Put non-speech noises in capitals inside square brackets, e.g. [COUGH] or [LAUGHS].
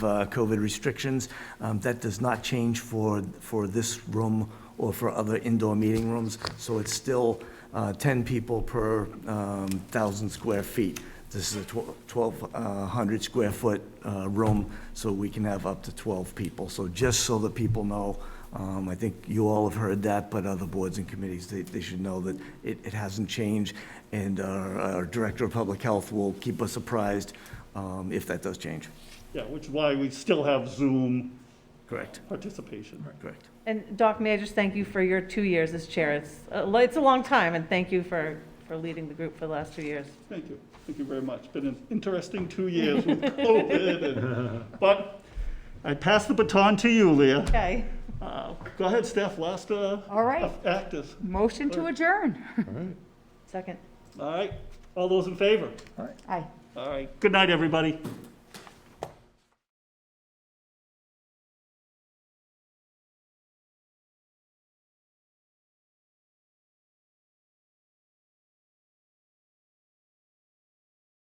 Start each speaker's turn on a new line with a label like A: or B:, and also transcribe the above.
A: uh, COVID restrictions. Um, That does not change for, for this room or for other indoor meeting rooms, so it's still uh, 10 people per um, 1,000 square feet. This is a 1,200 square foot uh, room, so we can have up to 12 people. So just so that people know, um, I think you all have heard that, but other boards and committees, they, they should know that it, it hasn't changed, and our, our Director of Public Health will keep us apprised um, if that does change.
B: Yeah, which is why we still have Zoom
A: Correct.
B: participation.
A: Correct.
C: And Doc, may I just thank you for your two years as chair? It's, a lo- it's a long time, and thank you for, for leading the group for the last two years.
B: Thank you, thank you very much. Been an interesting two years with COVID, [LAUGHS] and- but I pass the baton to you, Leah.
C: Okay.
B: Uh, Go ahead, Steph, last uh,
D: All right.
B: actus.
D: Motion to adjourn.
C: Second.
B: All right, all those in favor?
D: Aye.
B: All right, good night, everybody.